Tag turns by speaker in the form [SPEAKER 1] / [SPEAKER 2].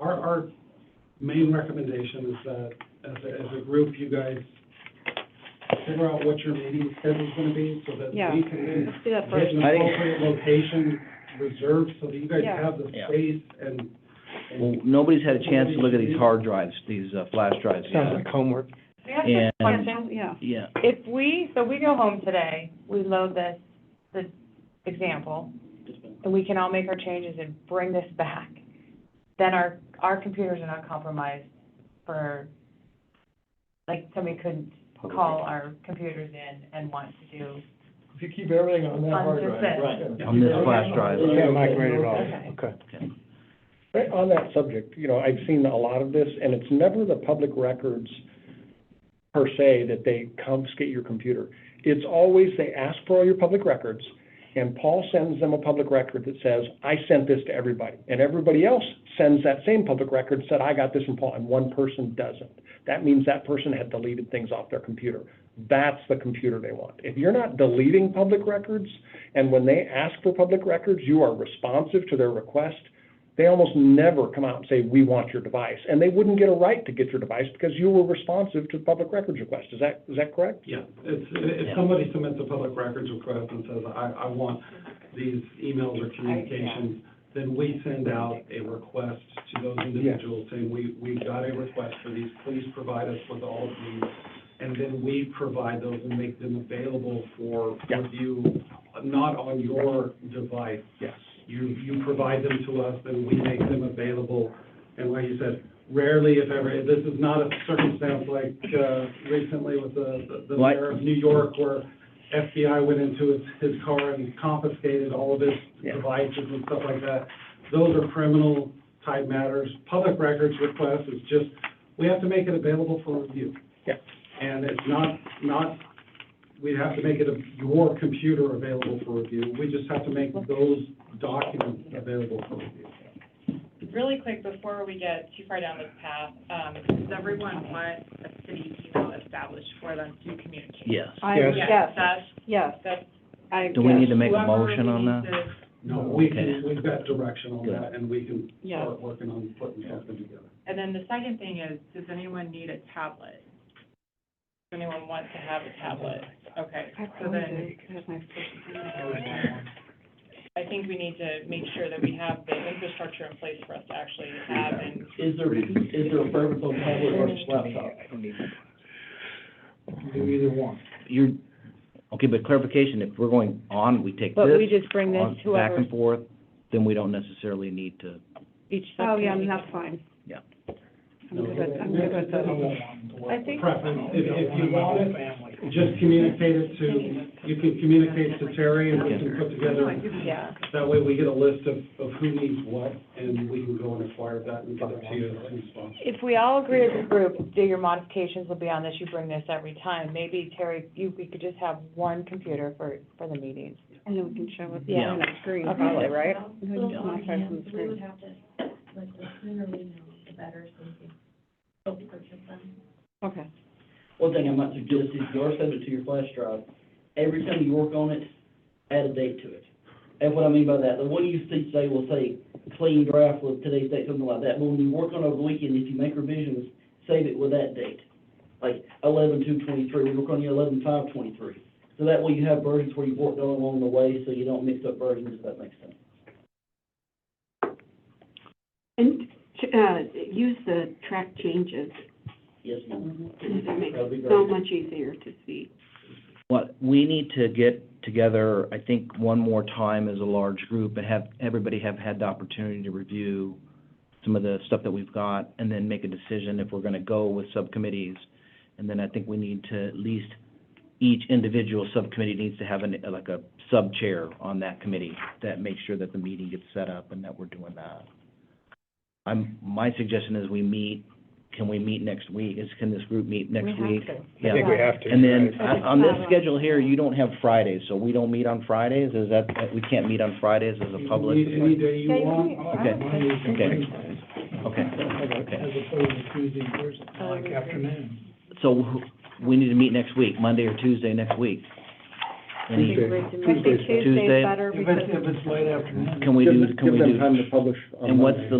[SPEAKER 1] our, our main recommendation is that, as a, as a group, you guys figure out what your meeting schedule's gonna be, so that
[SPEAKER 2] Yeah.
[SPEAKER 1] we can
[SPEAKER 2] Let's do
[SPEAKER 1] get
[SPEAKER 2] that first.
[SPEAKER 1] an
[SPEAKER 3] I think-
[SPEAKER 1] appropriate location reserved, so that you guys
[SPEAKER 2] Yeah.
[SPEAKER 1] have the
[SPEAKER 3] Yeah.
[SPEAKER 1] space and,
[SPEAKER 3] Well,
[SPEAKER 1] and
[SPEAKER 3] nobody's had a chance to look at these hard drives, these, uh, flash drives
[SPEAKER 4] Sounds
[SPEAKER 3] yet.
[SPEAKER 4] like homework.
[SPEAKER 5] May I ask a question?
[SPEAKER 3] And,
[SPEAKER 2] Yeah,
[SPEAKER 3] yeah,
[SPEAKER 5] If we, so we go home today, we load this, this example, and we can all make our changes and bring this back, then our, our computers are not compromised for, like, somebody couldn't call our computers in and want to do,
[SPEAKER 6] If you keep everything on that hard
[SPEAKER 5] On just
[SPEAKER 6] drive.
[SPEAKER 5] that.
[SPEAKER 6] yeah.
[SPEAKER 3] on this flash drive.
[SPEAKER 4] You can't migrate it all,
[SPEAKER 5] Okay.
[SPEAKER 4] okay.
[SPEAKER 3] Okay.
[SPEAKER 4] Right, on that subject, you know, I've seen a lot of this, and it's never the public records per se that they confiscate your computer. It's always they ask for all your public records, and Paul sends them a public record that says, I sent this to everybody. And everybody else sends that same public record, said, I got this from Paul, and one person doesn't. That means that person had deleted things off their computer. That's the computer they want. If you're not deleting public records, and when they ask for public records, you are responsive to their request, they almost never come out and say, we want your device. And they wouldn't get a right to get your device because you were responsive to the public records request. Is that, is that correct?
[SPEAKER 1] Yeah, it's, if
[SPEAKER 3] Yeah.
[SPEAKER 1] somebody submits a public records request and says, I, I want these emails or communications, then we send out a request to those individuals saying, we, we've got a request for these, please provide us with all of these. And then we provide those and make them available for
[SPEAKER 4] Yeah.
[SPEAKER 1] review, not on your device.
[SPEAKER 4] Yes.
[SPEAKER 1] You, you provide them to us, then we make them available. And like you said, rarely if ever, this is not a circumstance like, uh, recently with the, the
[SPEAKER 3] Like-
[SPEAKER 1] mayor of New York where FBI went into his, his car and confiscated all of his
[SPEAKER 4] Yeah.
[SPEAKER 1] devices and stuff like that. Those are criminal type matters. Public records request is just, we have to make it available for review.
[SPEAKER 4] Yeah.
[SPEAKER 1] And it's not, not, we have to make it a- your computer available for review. We just have to make those documents available for review.
[SPEAKER 7] Really quick, before we get too far down this path, um, does everyone want a city email established for them to communicate?
[SPEAKER 3] Yes.
[SPEAKER 2] I,
[SPEAKER 4] Yes.
[SPEAKER 2] yes,
[SPEAKER 7] That's,
[SPEAKER 2] yes,
[SPEAKER 7] that's.
[SPEAKER 2] I,
[SPEAKER 3] Do we need
[SPEAKER 2] yes,
[SPEAKER 3] to make a
[SPEAKER 7] whoever
[SPEAKER 3] motion on
[SPEAKER 7] needs
[SPEAKER 3] that?
[SPEAKER 7] it.
[SPEAKER 1] No, we can,
[SPEAKER 3] Okay.
[SPEAKER 1] we've got direction on
[SPEAKER 3] Good.
[SPEAKER 1] that, and we can
[SPEAKER 2] yes.
[SPEAKER 1] start working on putting something together.
[SPEAKER 7] And then the second thing is, does anyone need a tablet? Does anyone want to have a tablet? Okay,
[SPEAKER 2] I
[SPEAKER 7] so
[SPEAKER 2] probably
[SPEAKER 7] then,
[SPEAKER 2] do, 'cause that's my first time.
[SPEAKER 7] I think we need to make sure that we have the infrastructure in place for us to actually have and
[SPEAKER 8] Is there, is there a purpose on tablet versus laptop? You Do either one.
[SPEAKER 3] You're, okay, but clarification, if we're going on, we take this.
[SPEAKER 2] But we just bring
[SPEAKER 3] on-
[SPEAKER 2] this to
[SPEAKER 3] Back
[SPEAKER 2] whoever,
[SPEAKER 3] and forth, then we don't necessarily need to,
[SPEAKER 2] each subcommittee. Oh, yeah, and that's fine.
[SPEAKER 3] Yeah.
[SPEAKER 2] I'm good with, I'm good with that.
[SPEAKER 7] I think-
[SPEAKER 1] Preference, if, if you want it, just communicate it to, you can communicate to Terry, and we can put together,
[SPEAKER 7] Yeah.
[SPEAKER 1] that way we get a list of, of who needs what, and we can go and acquire that and get it to you as soon as possible.
[SPEAKER 5] if we all agree as a group, do your modifications will be on this, you bring this every time. Maybe, Terry, you, we could just have one computer for, for the meetings.
[SPEAKER 2] And then we can show it
[SPEAKER 3] Yeah.
[SPEAKER 2] on the screen,
[SPEAKER 5] Okay.
[SPEAKER 2] probably, right? We
[SPEAKER 9] um,
[SPEAKER 2] can
[SPEAKER 9] We
[SPEAKER 2] just modify it from the
[SPEAKER 9] would
[SPEAKER 2] screen.
[SPEAKER 9] have to, like, the sooner we know, the better, so we can help purchase them.
[SPEAKER 2] Okay.
[SPEAKER 8] One thing I might suggest is you are subject to your flash drive. Every time you work on it, add a date to it. And what I mean by that, the one you see today will say clean draft with today's date, something like that. But when you work on it over the weekend, if you make revisions, save it with that date. Like eleven two twenty-three, we work on the eleven five twenty-three. So that way you have versions where you worked on along the way, so you don't mix up versions, if that makes sense.
[SPEAKER 10] And, uh, use the track changes,
[SPEAKER 8] Yes, ma'am.
[SPEAKER 10] that
[SPEAKER 2] Mm-hmm.
[SPEAKER 10] makes
[SPEAKER 8] That'd be
[SPEAKER 10] it
[SPEAKER 8] great.
[SPEAKER 10] so much easier to see.
[SPEAKER 3] what, we need to get together, I think, one more time as a large group and have, everybody have had the opportunity to review some of the stuff that we've got, and then make a decision if we're gonna go with subcommittees. And then I think we need to at least, each individual subcommittee needs to have an, like a sub-chair on that committee that makes sure that the meeting gets set up and that we're doing that. I'm, my suggestion is we meet, can we meet next week? Is, can this group meet next week?
[SPEAKER 2] We have to.
[SPEAKER 3] Yeah.
[SPEAKER 4] I think we have to.
[SPEAKER 3] And then,
[SPEAKER 2] I
[SPEAKER 3] on
[SPEAKER 2] think
[SPEAKER 3] on this
[SPEAKER 2] Friday.
[SPEAKER 3] schedule here, you don't have Fridays, so we don't meet on Fridays, is that, that we can't meet on Fridays as a public?
[SPEAKER 1] You can meet Any day you
[SPEAKER 2] Yeah, you
[SPEAKER 1] want.
[SPEAKER 2] can-
[SPEAKER 3] Okay. Okay. Okay,
[SPEAKER 6] As
[SPEAKER 3] okay.
[SPEAKER 6] opposed to Tuesday, Thursday, like afternoon.
[SPEAKER 3] So, wh- we need to meet next week, Monday or Tuesday next week? Any-
[SPEAKER 2] I think Tuesday's
[SPEAKER 3] Tuesday.
[SPEAKER 2] better
[SPEAKER 6] If
[SPEAKER 2] because.
[SPEAKER 6] it's, if it's late afternoon.
[SPEAKER 3] Can we
[SPEAKER 4] Give
[SPEAKER 3] do,
[SPEAKER 4] them-
[SPEAKER 3] can we
[SPEAKER 4] Give
[SPEAKER 3] do?
[SPEAKER 4] them time to publish on
[SPEAKER 3] And what's
[SPEAKER 4] Monday.
[SPEAKER 3] the